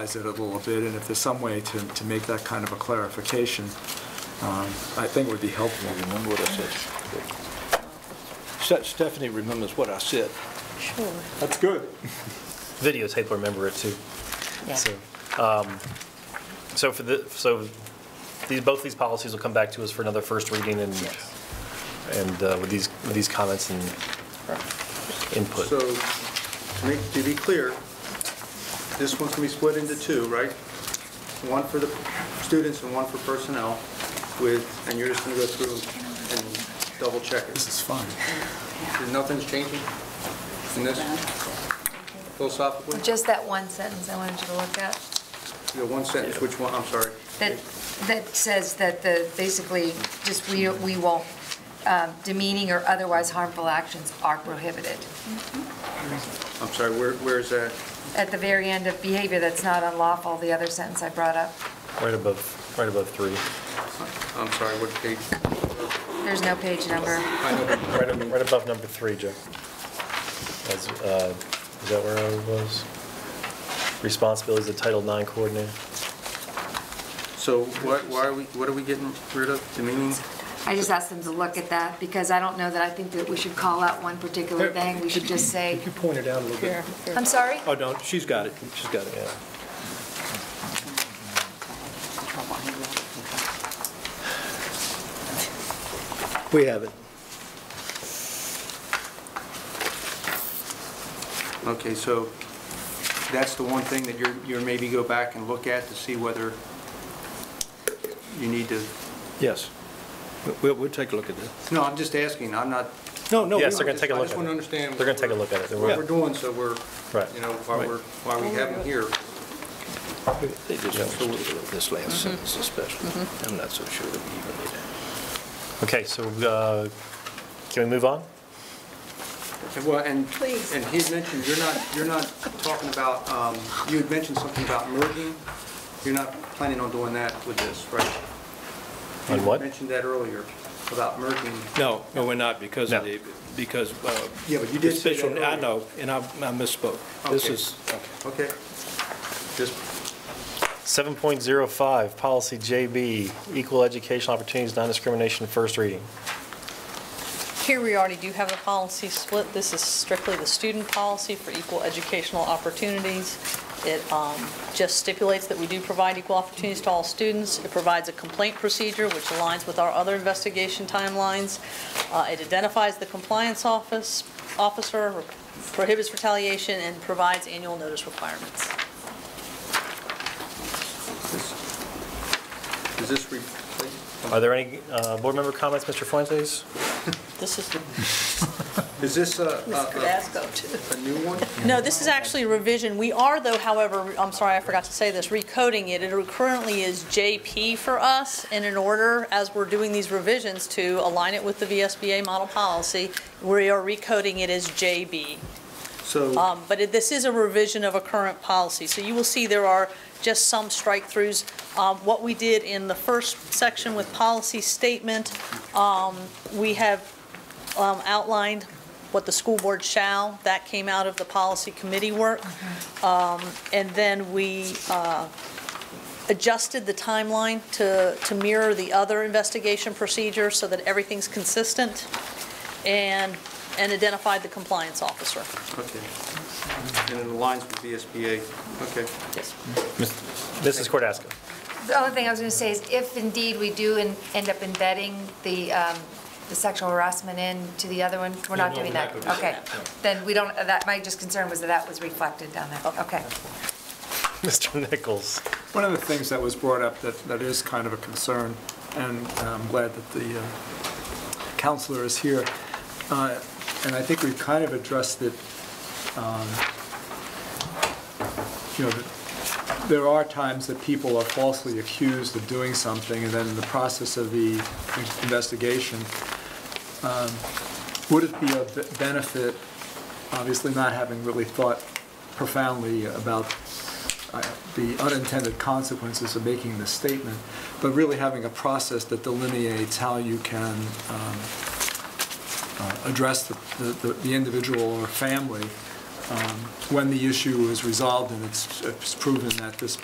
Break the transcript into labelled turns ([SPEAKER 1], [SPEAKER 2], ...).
[SPEAKER 1] analyze it a little bit, and if there's some way to, to make that kind of a clarification, um, I think would be helpful.
[SPEAKER 2] Remember what I said. Se- Stephanie remembers what I said.
[SPEAKER 3] Sure.
[SPEAKER 1] That's good.
[SPEAKER 4] videotape will remember it too.
[SPEAKER 3] Yeah.
[SPEAKER 4] So, um, so for the, so these, both these policies will come back to us for another first reading and,
[SPEAKER 3] Yes.
[SPEAKER 4] and uh, with these, with these comments and
[SPEAKER 5] So,
[SPEAKER 4] input.
[SPEAKER 5] to make- to be clear, this one's gonna be split into two, right? One for the students and one for personnel with, and you're just gonna go through and double check
[SPEAKER 1] This
[SPEAKER 5] it.
[SPEAKER 1] is fun.
[SPEAKER 5] Nothing's changing in this philosophically?
[SPEAKER 3] Just that one sentence I wanted you to look at,
[SPEAKER 5] You got one sentence, which one, I'm sorry.
[SPEAKER 3] that, that says that the, basically, just we, we won't, um, demeaning or otherwise harmful actions are prohibited.
[SPEAKER 5] I'm sorry, where, where is that?
[SPEAKER 3] At the very end of behavior that's not unlawful, the other sentence I brought up,
[SPEAKER 4] Right above, right above three,
[SPEAKER 5] I'm sorry, what page?
[SPEAKER 3] there's no page number.
[SPEAKER 5] I know, but
[SPEAKER 4] right ab- right above number three, Joe. As, uh, Is that where I was? Responsibilities of Title IX coordinator.
[SPEAKER 5] So what, why are we, what are we getting rid of, demeaning?
[SPEAKER 3] I just asked them to look at that, because I don't know that I think that we should call out one particular thing, we should just say,
[SPEAKER 2] Could you point it out a little bit?
[SPEAKER 3] I'm sorry?
[SPEAKER 2] Oh, no, she's got it, she's got it.
[SPEAKER 4] Yeah.
[SPEAKER 2] We have it.
[SPEAKER 5] Okay, so that's the one thing that you're, you're maybe go back and look at to see whether you need to,
[SPEAKER 2] Yes. We'll, we'll take a look at this.
[SPEAKER 5] no, I'm just asking, I'm not.
[SPEAKER 2] No, no.
[SPEAKER 4] Yes,
[SPEAKER 2] we-
[SPEAKER 4] they're going to take a
[SPEAKER 5] I
[SPEAKER 4] look at it.
[SPEAKER 5] just want to understand.
[SPEAKER 4] They're going to take a look at it. They're-
[SPEAKER 5] What we're doing, so we're,
[SPEAKER 4] Right.
[SPEAKER 5] you know, why
[SPEAKER 2] Right.
[SPEAKER 5] we're, why we have them here.
[SPEAKER 2] They just want us to look at this last sentence especially. I'm not so sure that we even need that.
[SPEAKER 4] Okay, so uh, can we move on?
[SPEAKER 5] And Well, and, and he had mentioned, you're not, you're not talking about, um, you had mentioned something about merging. You're not planning on doing that with this, right?
[SPEAKER 4] On
[SPEAKER 5] You
[SPEAKER 4] what?
[SPEAKER 5] mentioned that earlier, about merging.
[SPEAKER 2] No, no, we're not because of
[SPEAKER 4] No.
[SPEAKER 2] the, because. uh,
[SPEAKER 5] Yeah, but you did say that
[SPEAKER 2] special- I
[SPEAKER 5] earlier.
[SPEAKER 2] know, and I I misspoke. This
[SPEAKER 5] Okay.
[SPEAKER 2] is,
[SPEAKER 5] Okay. Just
[SPEAKER 4] 7.05, Policy JB, Equal Educational Opportunities, Non-Discrimination, first reading.
[SPEAKER 6] Here we already do have a policy split. This is strictly the student policy for equal educational opportunities. It um, just stipulates that we do provide equal opportunities to all students. It provides a complaint procedure, which aligns with our other investigation timelines. Uh, It identifies the compliance office, officer, prohibits retaliation, and provides annual notice requirements.
[SPEAKER 5] This- Does this replace?
[SPEAKER 4] Are there any uh, board member comments, Mr. Fuentes?
[SPEAKER 6] This is the
[SPEAKER 5] Is this a, a-
[SPEAKER 6] too.
[SPEAKER 5] a, a new one?
[SPEAKER 6] No, this is actually revision. We are though, however, I'm sorry, I forgot to say this, recoding it. It currently is JP for us, and in order, as we're doing these revisions to align it with the VSBA model policy, we are recoding it as JB.
[SPEAKER 5] So,
[SPEAKER 6] Um, But it- this is a revision of a current policy, so you will see there are just some strike-throughs. Um, What we did in the first section with policy statement, um, we have um, outlined what the school board shall, that came out of the policy committee work. Um, And then we uh, adjusted the timeline to to mirror the other investigation procedure so that everything's consistent, and and identified the compliance officer.
[SPEAKER 5] okay. And it aligns with VSBA, okay.
[SPEAKER 6] Yes.
[SPEAKER 4] Mrs. Cordasco?
[SPEAKER 3] The only thing I was going to say is if indeed we do en- end up embedding the um, the sexual harassment in to the other one, we're not doing that. Okay. Then we don't, that, my just concern was that that was reflected down there. Okay.
[SPEAKER 4] Mr. Nichols?
[SPEAKER 1] One of the things that was brought up that, that is kind of a concern, and I'm glad that the uh, counselor is here, uh, and I think we've kind of addressed it, um, you know, that there are times that people are falsely accused of doing something, and then in the process of the investigation, um, would it be of benefit, obviously not having really thought profoundly about uh, the unintended consequences of making this statement, but really having a process that delineates how you can um, uh, address the- the the- the individual or family um, when the issue is resolved and it's it's proven that this